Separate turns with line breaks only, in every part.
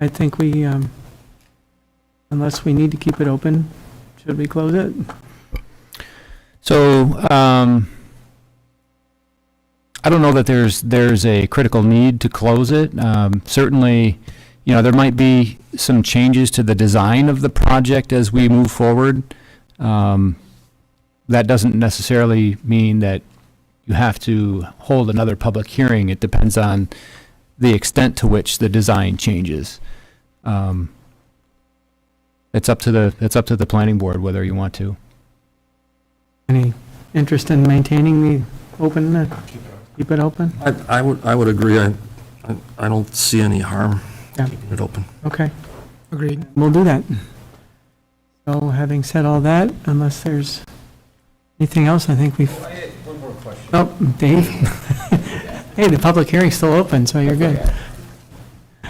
I think we, um, unless we need to keep it open, should we close it?
So, um, I don't know that there's, there's a critical need to close it. Um, certainly, you know, there might be some changes to the design of the project as we move forward. Um, that doesn't necessarily mean that you have to hold another public hearing. It depends on the extent to which the design changes. Um, it's up to the, it's up to the planning board whether you want to.
Any interest in maintaining the open, uh, keep it open?
I, I would, I would agree. I, I- I don't see any harm
Yeah.
keeping it open.
Okay,
Agreed.
we'll do that. So having said all that, unless there's anything else, I think we've. One more question. Oh, Dave? Hey, the public hearing's still open, so you're good.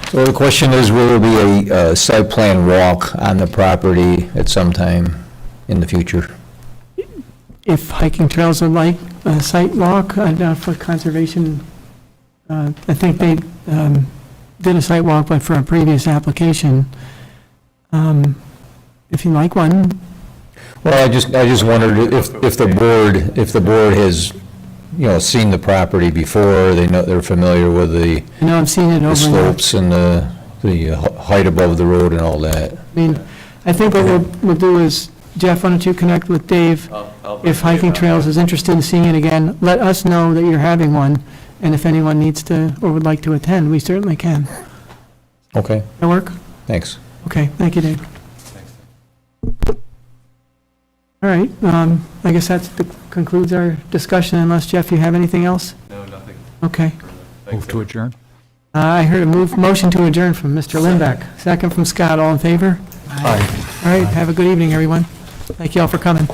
So the question is, will there be a uh, site plan walk on the property at some time in the future?
If hiking trails would like a site walk, I doubt for conservation, uh, I think they um, did a site walk, but for a previous application. Um, If you like one,
Well, I just, I just wondered if, if the board, if the board has, you know, seen the property before, they know, they're familiar with the
I know I've seen it
the
over. and over.
slopes and the, the uh, height above the road and all that.
I mean, I think what we'll, we'll do is, Jeff, why don't you connect with Dave? If Hiking Trails is interested in seeing it again, let us know that you're having one, and if anyone needs to, or would like to attend, we certainly can.
Okay,
That work?
thanks.
Okay, thank you, Dave. All right, um, I guess that's, the- concludes our discussion, unless, Jeff, you have anything else? No, nothing. Okay.
Move to adjourn?
Uh, I heard a move, motion to adjourn from Mr. Lindback, second from Scott, all in favor? All right, have a good evening, everyone. Thank you all for coming.